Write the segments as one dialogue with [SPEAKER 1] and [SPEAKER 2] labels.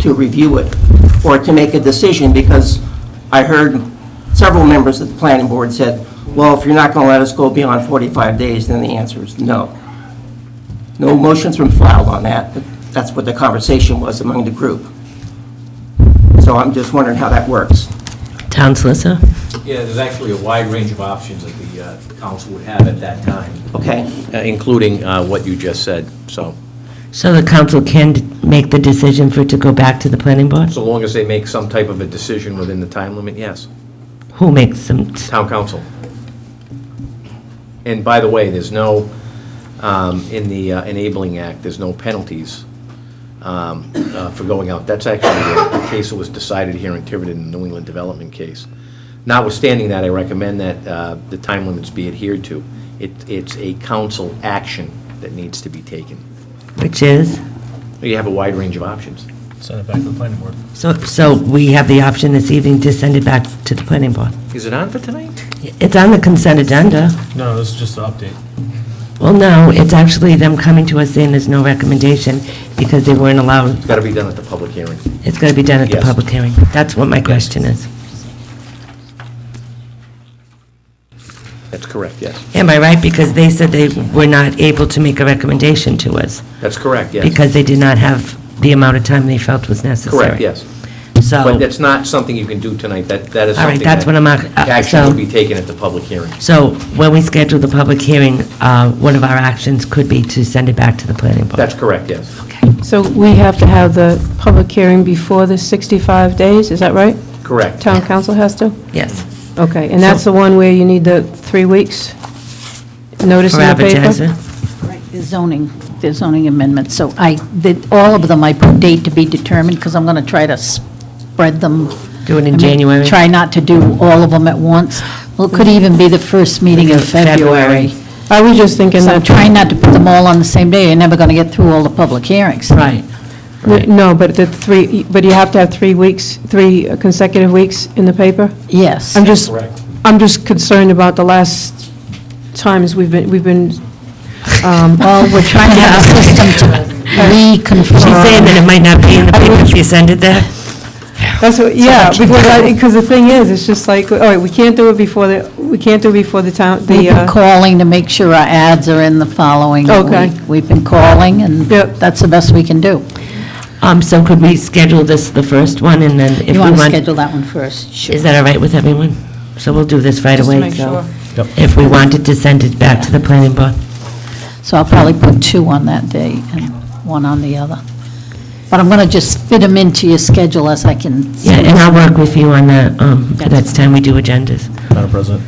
[SPEAKER 1] to review it or to make a decision, because I heard several members of the planning board said, well, if you're not going to let us go beyond 45 days, then the answer is no. No motions were filed on that, but that's what the conversation was among the group. So I'm just wondering how that works.
[SPEAKER 2] Town solicitor?
[SPEAKER 3] Yeah, there's actually a wide range of options that the uh, council would have at that time,
[SPEAKER 1] Okay?
[SPEAKER 3] uh, including uh, what you just said. So,
[SPEAKER 2] So the council can d- make the decision for it to go back to the planning board?
[SPEAKER 3] so long as they make some type of a decision within the time limit, yes,
[SPEAKER 2] Who makes them? t-
[SPEAKER 3] town council. And by the way, there's no, um, in the uh, Enabling Act, there's no penalties um, uh, for going out. That's actually a case that was decided here in Tiverton, in the New England Development case. Notwithstanding that, I recommend that uh, the time limits be adhered to. It, it's a council action that needs to be taken.
[SPEAKER 2] Which is?
[SPEAKER 3] You have a wide range of options.
[SPEAKER 4] Send it back to the planning board.
[SPEAKER 2] So, so we have the option this evening to send it back to the planning board.
[SPEAKER 3] Is it on for tonight?
[SPEAKER 2] It's on the consent agenda.
[SPEAKER 4] No, this is just an update.
[SPEAKER 2] Well, no, it's actually them coming to us saying there's no recommendation because they weren't allowed.
[SPEAKER 3] It's got to be done at the public hearing.
[SPEAKER 2] It's going to be done at the
[SPEAKER 3] Yes.
[SPEAKER 2] public hearing. That's what my question is.
[SPEAKER 3] That's correct, yes.
[SPEAKER 2] Am I right? Because they said they were not able to make a recommendation to us
[SPEAKER 3] That's correct, yes.
[SPEAKER 2] because they did not have the amount of time they felt was necessary.
[SPEAKER 3] Correct, yes. But
[SPEAKER 2] So,
[SPEAKER 3] that's not something you can do tonight. That, that is
[SPEAKER 2] Oh. All right,
[SPEAKER 3] something
[SPEAKER 2] that's
[SPEAKER 3] that
[SPEAKER 2] what I'm ac- uh,
[SPEAKER 3] Action
[SPEAKER 2] so-
[SPEAKER 3] will be taken at the public hearing.
[SPEAKER 2] so when we schedule the public hearing, uh, one of our actions could be to send it back to the planning board.
[SPEAKER 3] That's correct, yes.
[SPEAKER 5] So we have to have the public hearing before the 65 days, is that right?
[SPEAKER 3] Correct.
[SPEAKER 5] Town council has to?
[SPEAKER 2] Yes,
[SPEAKER 5] Okay, and that's the one where you need the three weeks notice
[SPEAKER 2] for
[SPEAKER 5] in the paper?
[SPEAKER 2] advertising.
[SPEAKER 6] Right, the zoning, the zoning amendments, so I, did all of them, I put date to be determined, because I'm going to try to spread them.
[SPEAKER 2] Do it in
[SPEAKER 6] I mean,
[SPEAKER 2] January.
[SPEAKER 6] Try not to do all of them at once. Well, it could even be the first meeting in
[SPEAKER 2] February.
[SPEAKER 6] February.
[SPEAKER 5] I was just thinking
[SPEAKER 6] So I'm
[SPEAKER 5] that,
[SPEAKER 6] trying not to put them all on the same day, you're never going to get through all the public hearings.
[SPEAKER 2] Right.
[SPEAKER 5] no, but the three, but you have to have three weeks, three consecutive weeks in the paper?
[SPEAKER 6] Yes.
[SPEAKER 5] I'm just, I'm just concerned about the last times we've been, we've been, um,
[SPEAKER 6] Well, we're trying to have a system to
[SPEAKER 2] She's saying that
[SPEAKER 6] reconfirm.
[SPEAKER 2] it might not be in the paper if you send it there.
[SPEAKER 5] That's what, yeah, because I, because the thing is, it's just like, all right, we can't do it before the, we can't do it before the town, the,
[SPEAKER 6] We've been
[SPEAKER 5] uh,
[SPEAKER 6] calling to make sure our ads are in the following
[SPEAKER 5] Okay.
[SPEAKER 6] week. We've been calling, and
[SPEAKER 5] Yep.
[SPEAKER 6] that's the best we can do.
[SPEAKER 2] Um, so could we schedule this, the first one, and then if we
[SPEAKER 6] You want
[SPEAKER 2] want...
[SPEAKER 6] to schedule that one first?
[SPEAKER 2] Is that all right with everyone? So we'll do this right
[SPEAKER 5] Just to
[SPEAKER 2] away,
[SPEAKER 5] make
[SPEAKER 2] so...
[SPEAKER 5] sure.
[SPEAKER 4] Yep.
[SPEAKER 2] If we wanted to send it back to the planning board.
[SPEAKER 6] So I'll probably put two on that day and one on the other. But I'm going to just fit them into your schedule as I can.
[SPEAKER 2] Yeah, and I'll work with you on that, um, the next time we do agendas.
[SPEAKER 4] Madam President,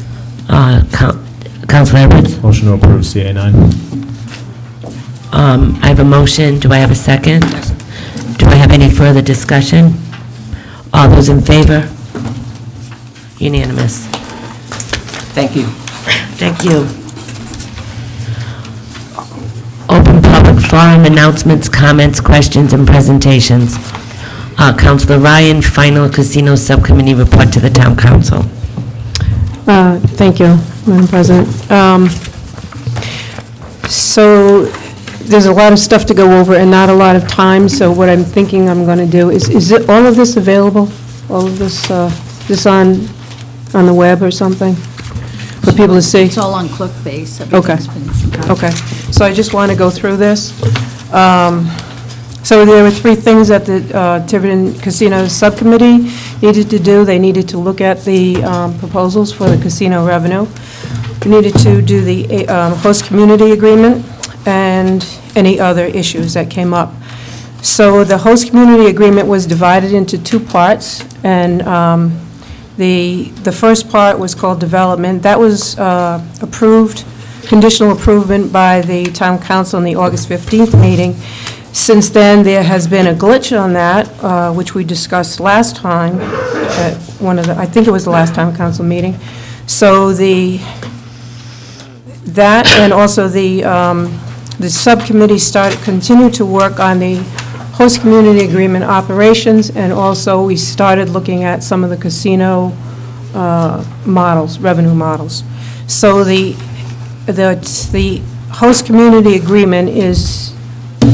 [SPEAKER 2] Uh, Coun- Counselor Edwards,
[SPEAKER 4] motion to approve CA nine.
[SPEAKER 2] um, I have a motion, do I have a second? Do I have any further discussion? All those in favor? Unanimous.
[SPEAKER 1] Thank you.
[SPEAKER 2] Thank you. Open public forum announcements, comments, questions, and presentations. Uh, Counselor Ryan, final casino subcommittee report to the town council.
[SPEAKER 5] Uh, Thank you, Madam President. Um, So there's a lot of stuff to go over and not a lot of time, so what I'm thinking I'm going to do is, is it- all of this available? All of this, uh, this on, on the web or something for people to see?
[SPEAKER 6] It's all on ClickBase.
[SPEAKER 5] Okay.
[SPEAKER 6] Everything's been-
[SPEAKER 5] Okay, so I just want to go through this. Um, So there were three things that the uh, Tiverton Casino Subcommittee needed to do. They needed to look at the um, proposals for the casino revenue. We needed to do the uh, um, host community agreement and any other issues that came up. So the host community agreement was divided into two parts, and um, the, the first part was called development. That was uh, approved, conditional approval by the town council in the August 15th meeting. Since then, there has been a glitch on that, uh, which we discussed last time, at one of the, I think it was the last town council meeting. So the, that, and also the, um, the subcommittee started, continued to work on the host community agreement operations, and also we started looking at some of the casino uh, models, revenue models. So the, the, the host community agreement is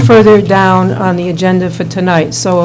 [SPEAKER 5] further down on the agenda for tonight, so